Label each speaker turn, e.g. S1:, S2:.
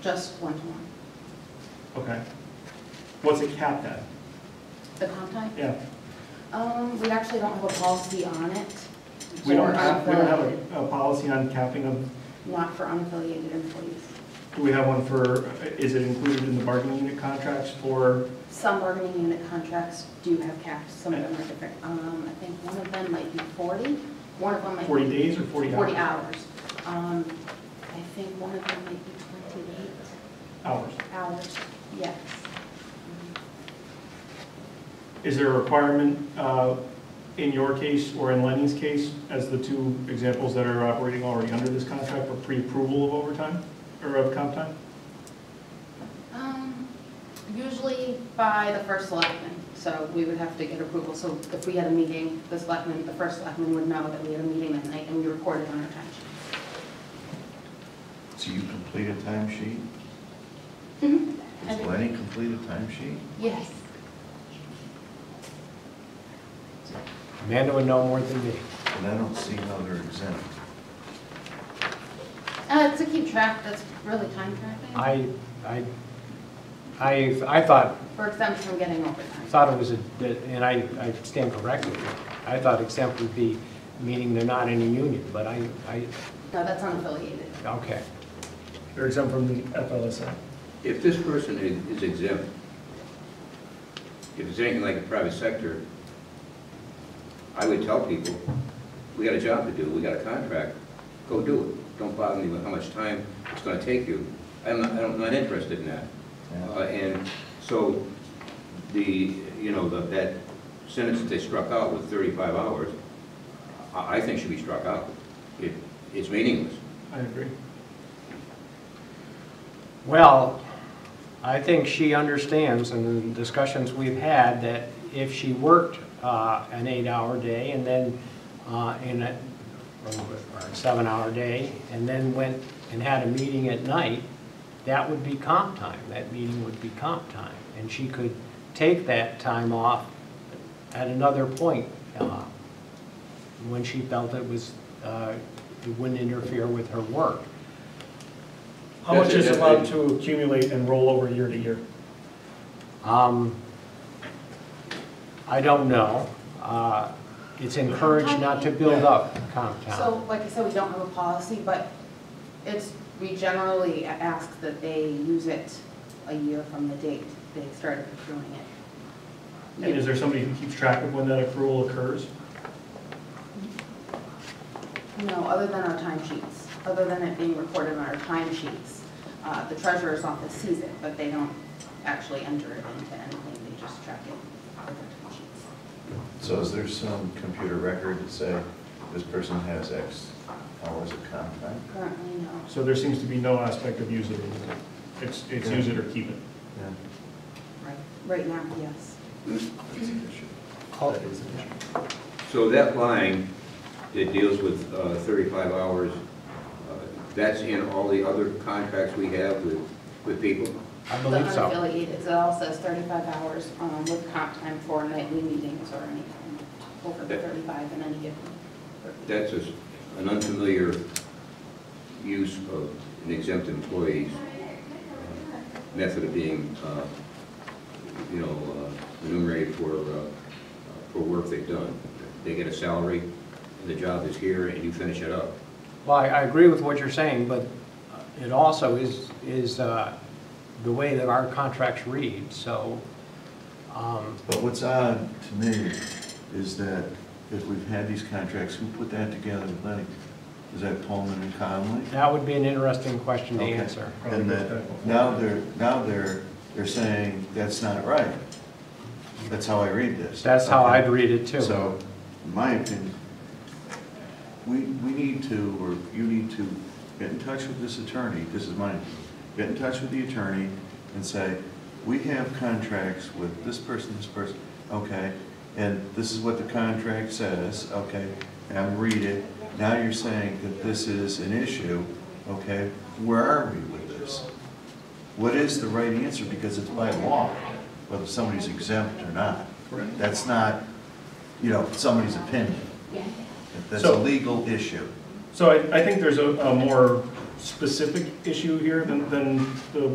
S1: just one-to-one.
S2: Okay. What's it capped at?
S1: The comp time?
S2: Yeah,
S1: Um, we actually don't have a policy on it.
S2: we don't
S1: for
S2: have, we don't have
S1: unaffiliated-
S2: a, a policy on capping of,
S1: Not for unaffiliated employees.
S2: do we have one for, is it included in the bargaining unit contracts for,
S1: Some bargaining unit contracts do have caps, some of them are different. Um, I think one of them might be 40, one of them might be.
S2: 40 days or 40
S1: 40
S2: hours?
S1: hours. Um, I think one of them might be 28
S2: hours?
S1: hours, yes.
S2: Is there a requirement, uh, in your case or in Lenny's case, as the two examples that are operating already under this contract, for pre-approval of overtime or of comp time?
S1: Um, Usually by the first selectman, so we would have to get approval. So if we had a meeting, the selectman, the first selectman would know that we had a meeting that night and we recorded on our time.
S3: So you complete a timesheet?
S1: I
S3: Does
S1: do.
S3: Lenny complete a timesheet?
S1: Yes.
S4: Amanda would know more than me.
S3: And I don't see how they're exempt.
S1: Uh, To keep track, that's really time tracking,
S4: I, I, I, I thought,
S1: for exempt from getting overtime.
S4: thought it was, a and I, I stand corrected, I thought exempt would be, meaning they're not in a union, but I, I,
S1: No, that's unaffiliated.
S4: okay.
S2: They're exempt from the FLSA.
S5: If this person i- is exempt, if it's anything like the private sector, I would tell people, we got a job to do, we got a contract, go do it. Don't bother me with how much time it's gonna take you. I'm not, I'm not interested in that. Uh, And so the, you know, the- that sentence that they struck out with 35 hours, I I think should be struck out. It- It's meaningless.
S2: I agree.
S4: Well, I think she understands in the discussions we've had that if she worked uh, an eight-hour day and then, uh, in a, or a seven-hour day, and then went and had a meeting at night, that would be comp time. That meeting would be comp time. And she could take that time off at another point uh, when she felt it was, uh, it wouldn't interfere with her work.
S2: How much is
S5: That's it, that's
S2: allowed
S5: it.
S2: to accumulate and roll over year to year?
S4: Um, I don't know. Uh, It's encouraged not to build up comp time.
S1: So, like I said, we don't have a policy, but it's, we generally ask that they use it a year from the date they started accruing it.
S2: And is there somebody who keeps track of when that accrual occurs?
S1: No, other than our timesheets, other than it being recorded on our timesheets. Uh, The treasurer's office sees it, but they don't actually enter it into anything, they just track it with their timesheets.
S3: So is there some computer record that say this person has X hours of comp time?
S1: Currently, no.
S2: So there seems to be no aspect of use it or lose it. It's, it's use it or keep it.
S3: Yeah.
S1: Right. Right now, yes.
S3: That's an issue.
S4: Oh.
S3: That is an issue.
S5: So that line that deals with uh, 35 hours, uh, that's in all the other contracts we have with, with people?
S4: I believe
S1: The
S4: so.
S1: unaffiliated, it all says 35 hours um, with comp time for nightly meetings or any time over the 35 in any given.
S5: That's just an unfamiliar use of an exempt employee's uh, method of being, uh, you know, uh, remunerated for, uh, for work they've done. They get a salary, and the job is here, and you finish it up.
S4: Well, I- I agree with what you're saying, but it also is, is uh, the way that our contracts read, so, um,
S3: But what's odd to me is that if we've had these contracts, who put that together with Lenny? Is that Pullman and Conley?
S4: that would be an interesting question to
S3: Okay.
S4: answer.
S3: And that, now they're, now they're, they're saying, that's not right. That's how I read this.
S4: That's how
S3: Okay.
S4: I'd read it too.
S3: So, in my opinion, we, we need to, or you need to get in touch with this attorney, this is mine, get in touch with the attorney and say, we have contracts with this person, this person, okay, and this is what the contract says, okay, and I read it, now you're saying that this is an issue, okay, where are we with this? What is the right answer, because it's by law, whether somebody's exempt or not.
S2: Correct.
S3: That's not, you know, somebody's opinion.
S1: Yeah.
S3: That's
S2: So-
S3: a legal issue.
S2: So I, I think there's a, a more specific issue here than, than the